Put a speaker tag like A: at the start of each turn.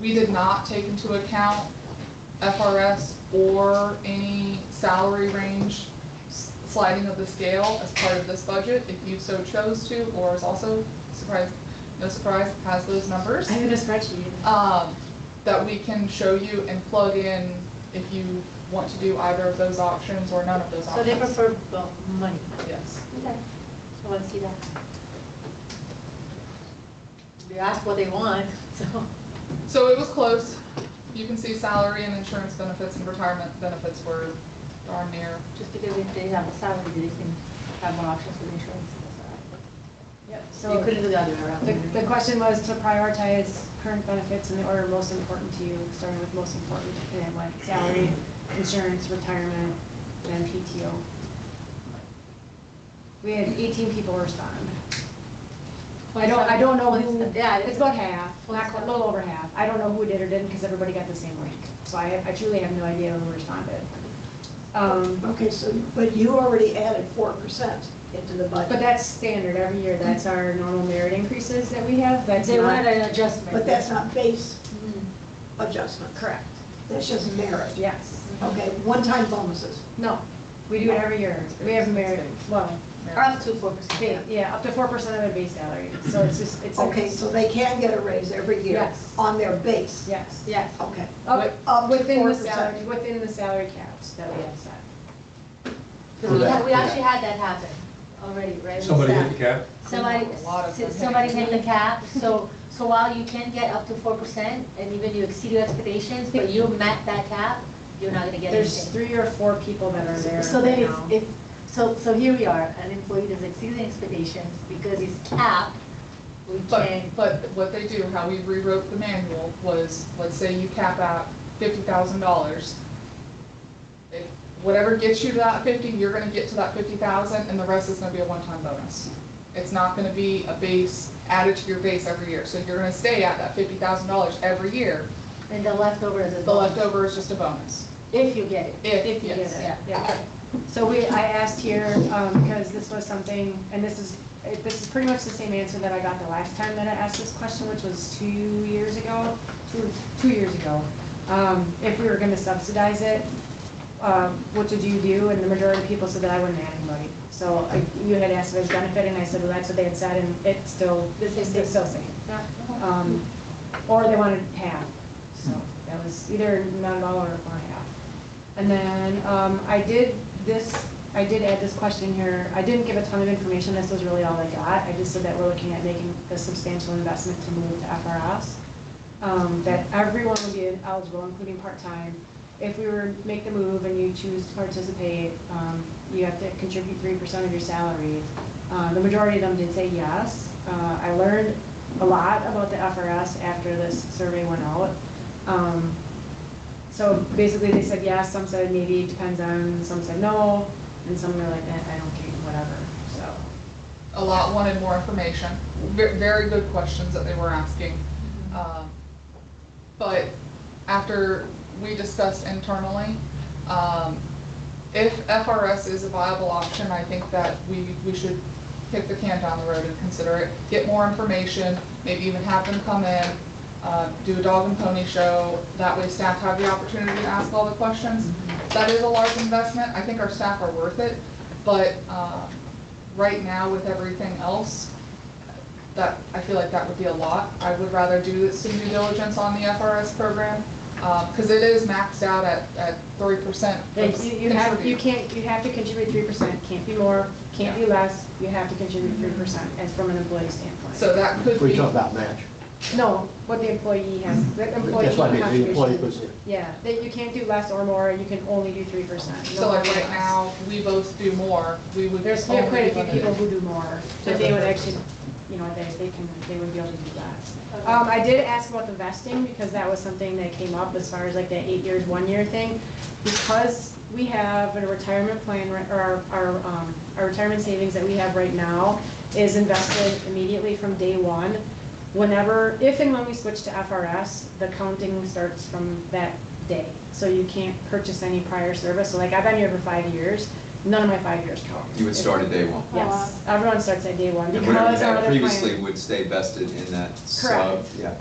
A: we did uh, not take into account FRS or any salary range s- sliding of the scale as part of this budget, if you so chose to, or is also surprised, no surprise, has those numbers
B: I have a spreadsheet.
A: um, that we can show you and plug in if you want to do either of those options or none of those
B: So they
A: options.
B: prefer well, money.
A: Yes.
B: Okay. So let's see that. We ask what they want, so.
A: So it was close. You can see salary and insurance benefits and retirement benefits were darn near.
B: Just because if they have a salary, they can have more options with insurance.
C: Yep,
B: So you
C: so
B: couldn't do the other way
C: the, the
B: around.
C: question was to prioritize current benefits in the order most important to you, starting with most important, and then what, salary, insurance, retirement, then PTO. We had 18 people respond. I don't, I don't know who,
B: Yeah,
C: it's
B: it's,
C: about half, not quite- a little over half. I don't know who did or didn't, because everybody got the same link. So I, I truly have no idea who responded. Um,
D: Okay, so, but you already added four percent into the budget.
C: But that's standard, every year, that's our normal merit increases that we have, that's
B: they wanted
C: not,
B: an adjustment.
D: But that's not base
B: Mm.
D: adjustment.
C: Mm-hmm. correct, Mm-hmm.
D: That's just merit.
C: yes.
D: Okay, one-time bonuses.
C: No, we do it every year, we have merit, well,
B: Or up to four percent.
C: ba- yeah, up to four percent of their base salary, so it's just, it's. a-
D: Okay, so they can get a raise every year
C: Yes.
D: on their base.
C: Yes,
B: Yes.
D: Okay.
C: up,
D: Up to
C: within the
D: 4%.
C: salary, within the salary caps that we have set.
B: Because we had- we actually had that happen already, right? with
E: Somebody
B: staff.
E: hit the cap?
B: Somebody,
A: A lot of them.
B: somebody hit the cap, so, so while you can get up to four percent, and even you exceed your expectations, but you met that cap, you're not gonna get
C: There's
B: anything.
C: three or four people that are there
B: So then
C: right
B: it's,
C: now.
B: if, so, so here we are, an employee that's exceeding expectations, because he's capped, we
A: But,
B: can,
A: but what they do, how we rewrote the manual was, let's say you cap out fifty thousand dollars. Whatever gets you to that fifty, you're gonna get to that fifty thousand and the rest is gonna be a one-time bonus. It's not gonna be a base added to your base every year. So you're gonna stay at that fifty thousand dollars every year.
B: and the leftover is a
A: The
B: bonus,
A: leftover is just a bonus.
B: if you get it.
C: If you
A: yes.
C: get it, yeah. So we, I asked here, um, because this was something, and this is, it- this is pretty much the same answer that I got the last time that I asked this question, which was two years ago, two, two years ago. Um, if we were gonna subsidize it, um, what did you do? And the majority of people said that I wouldn't add anybody. So I- you had asked if it was benefit, and I said, well, that's what they had said, and it's still,
B: The same thing.
C: it's still same. Um, or they wanted half, so that was either none at all or or half. And then, um, I did this, I did add this question here, I didn't give a ton of information, this was really all I got, I just said that we're looking at making a substantial investment to move to FRS. Um, that everyone would be eligible, including part-time, if we were, to make the move and you choose to participate, um, you have to contribute three percent of your salary. Uh, the majority of them did say yes. Uh, I learned a lot about the FRS after this survey went out. Um, so basically, they said yes, some said maybe, depends on, some said no, and some were like, eh, I don't care, whatever, so.
A: a lot wanted more information. Ve- Very good questions that they were asking. Um, But after we discussed internally, um, if FRS is a viable option, I think that we, we should kick the can down the road and consider it. Get more information, maybe even have them come in, uh, do a dog and pony show. That way staff have the opportunity to ask all the questions.
C: Mm-hmm.
A: That is a large investment. I think our staff are worth it. But um, right now with everything else, that, I feel like that would be a lot. I would rather do some due diligence on the FRS program, because it is maxed out at, at three percent.
C: Like, you, you have, you can't, you have to contribute three percent, can't be more, can't be less, you have to contribute three percent, as from an employee standpoint.
A: So that could
F: We
A: be,
F: talk about match.
C: No, what the employee has, the employee
F: That's why the employee
C: contribution.
F: was,
C: Yeah, that you can't do less or more, you can only do three percent.
A: so like right now, we both do more, we would.
C: There's we have
A: only
C: quite a
A: be
C: few people
A: limited.
C: who do more, but they would actually, you know, they, they can, they would be able to do that. Um, I did ask about the vesting, because that was something that came up as far as like the eight years, one year thing. Because we have a retirement plan, ri- or our- our, um, our retirement savings that we have right now is invested immediately from day one. Whenever, if and when we switch to FRS, the counting starts from that day. So you can't purchase any prior service, so like, I've been here for five years, none of my five years count.
G: You would start at day one.
C: Yes, everyone starts at day one
G: And whatever you
C: because our
G: had
C: other plan.
G: previously would stay vested in that sub.
C: Correct.
G: Yeah.